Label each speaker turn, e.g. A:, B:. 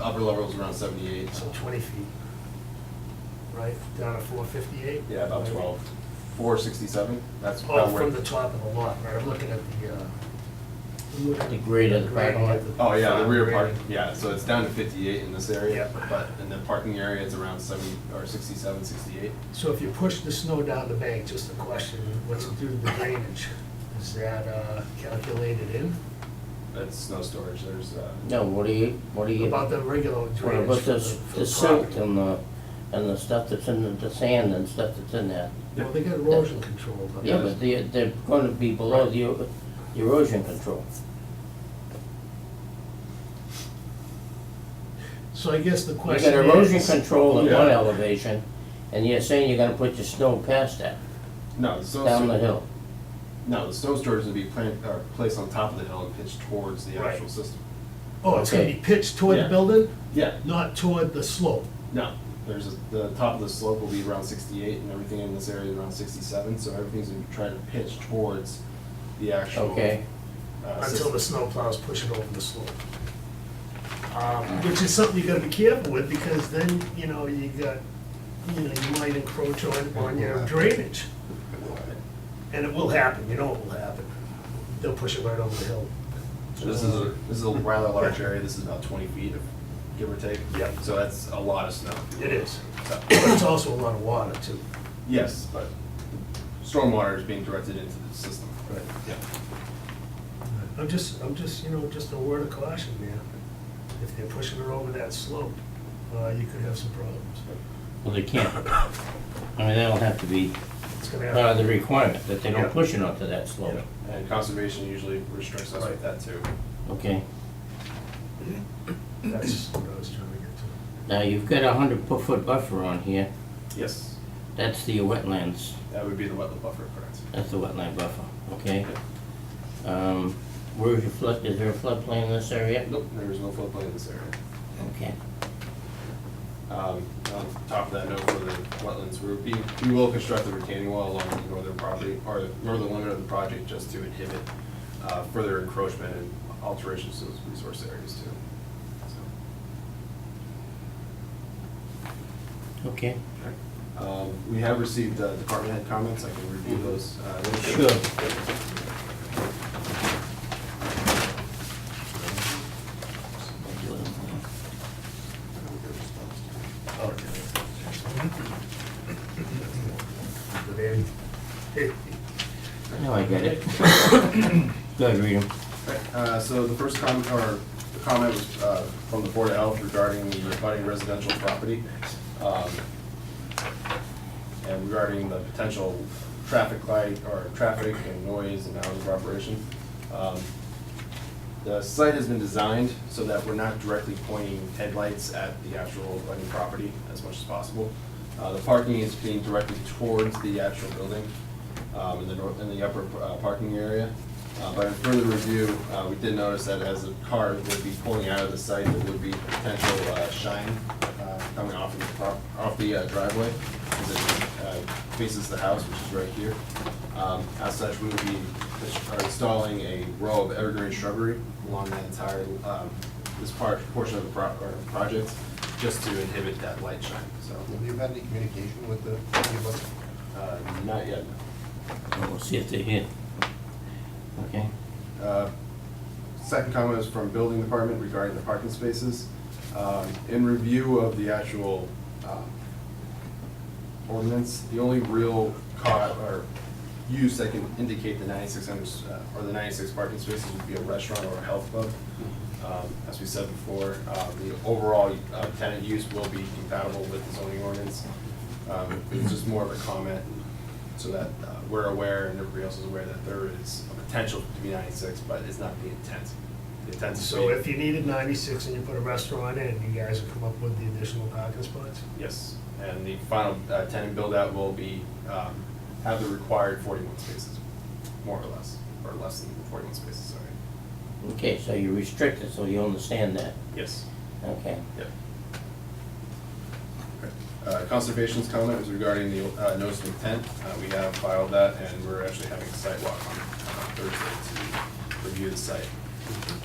A: upper level is around seventy-eight.
B: So twenty feet, right, down to four fifty-eight?
A: Yeah, about twelve. Four sixty-seven, that's
B: Oh,
A: about where.
B: from the top of the lot, right, I'm looking at the, uh. I'm looking at
C: The grade of the parking lot.
B: grading at
A: Oh, yeah, the
B: front
A: rear park,
B: grading.
A: yeah, so it's down to fifty-eight in this area,
B: Yep.
A: but in the parking area, it's around seventy, or sixty-seven, sixty-eight.
B: So if you push the snow down the bank, just a question, what's it do to the drainage? Is that, uh, calculated in?
A: That's snow storage, there's, uh.
C: No, what do you, what do you?
B: About the regular
C: Well,
B: drainage.
C: But
B: for
C: the,
B: for
C: the
B: property.
C: silt and the, and the stuff that's in the, the sand and stuff that's in there.
B: Well, they got erosion control, but.
C: Yeah, but they're, they're gonna be below the o- the erosion control.
B: So I guess the
C: You
B: question
C: got
B: is.
C: erosion control at one
A: Yeah.
C: elevation, and you're saying you're gonna put your snow past that,
A: No, the snow.
C: down the hill.
A: No, the snow storage would be plant, or placed on top of the hill and pitched towards the
B: Right.
A: actual system.
B: Oh, it's gonna be
C: Okay.
B: pitched toward the
A: Yeah.
B: building,
A: Yeah,
B: not toward the slope?
A: no, there's, a- the top of the slope will be around sixty-eight and everything in this area is around sixty-seven, so everything's gonna try to pitch towards the actual.
C: Okay.
A: uh,
B: until
A: system.
B: the snowplows push it over the slope. Um, Which is something you gotta be careful with, because then, you know, you got, you know, you might encroach on, on your drainage. And it will happen, you know it will happen. They'll push it right over the hill.
A: So This is, a this is a rather large area, this is about twenty feet, of give or take.
B: Yeah.
A: So that's a lot of snow.
B: It is.
A: So-
B: But it's also a lot of water too.
A: Yes, but stormwater is being directed into the system.
B: Right.
A: Yeah.
B: I'm just, I'm just, you know, just a word of caution, man. If they're pushing it over that slope, uh, you could have some problems.
C: Well, they can't, I mean, that'll have to be
B: It's gonna
C: part of
B: happen.
C: the requirement, that they
B: Yeah.
C: don't push it onto that slope.
A: And conservation usually restricts us with that too.
C: Okay,
B: That's what I was trying to get to.
C: now you've got a hundred per foot buffer on here,
A: Yes,
C: that's the wetlands,
A: that would be the wetland buffer, correct?
C: that's the wetland buffer, okay? Um, where is your flood, is there a floodplain in this area?
A: Nope, there is no floodplain in this area.
C: Okay.
A: Um, On top of that note, for the wetlands, we're- we, we will construct a retaining wall along the northern property, or the northern limit of the project, just to inhibit uh, further encroachment and alterations to those resource areas too. So.
C: Okay.
A: Um, We have received uh, department head comments, I can review those. uh, really
C: Sure.
A: quick.
C: Now I get it. Go ahead, read 'em.
A: Uh, So the first comment, or the comment was uh, from the Board of Health regarding the abutting residential property. um, And regarding the potential traffic light, or traffic and noise and hours of operation. Um, The site has been designed so that we're not directly pointing headlights at the actual abutting property as much as possible. Uh, The parking is being directed towards the actual building um, in the north, in the upper uh, parking area. Uh, But in further review, uh, we did notice that as a car would be pulling out of the site, there would be potential uh, shine uh, coming off of the, prop- off the uh, driveway as it uh, faces the house, which is right here. Um, As such, we would be ins- are installing a row of evergreen shrubbery along that entire, um, this part, portion of the pro- or project, just to inhibit that light shine, so.
D: Have you had any communication with the, with
A: uh, Not yet,
C: And We'll see if they're here. Okay,
A: Uh, Second comment is from building department regarding the parking spaces. Um, In review of the actual um, ordinance, the only real caught or use that can indicate the 9,600, uh, or the 96 parking spaces would be a restaurant or a health club. Um, As we said before, uh, the overall uh, tenant use will be compatible with the zoning ordinance. Um, It's just more of a comment so that uh, we're aware and everybody else is aware that there is a potential to be 96, but it's not the intent. The intent is. to
B: So
A: be-
B: if you needed ninety-six and you put a restaurant in, you guys would come up with the additional parking spots?
A: Yes, and the final uh, tenant build-out will be, um, have the required 41 spaces, more or less, or less than 41 spaces, sorry.
C: okay, so you restrict it, so you understand that,
A: Yes.
C: okay.
A: Yep. Uh, Conservation's comment was regarding the uh, notice of intent. Uh, We have filed that, and we're actually having a site walk on uh, Thursday to review the site.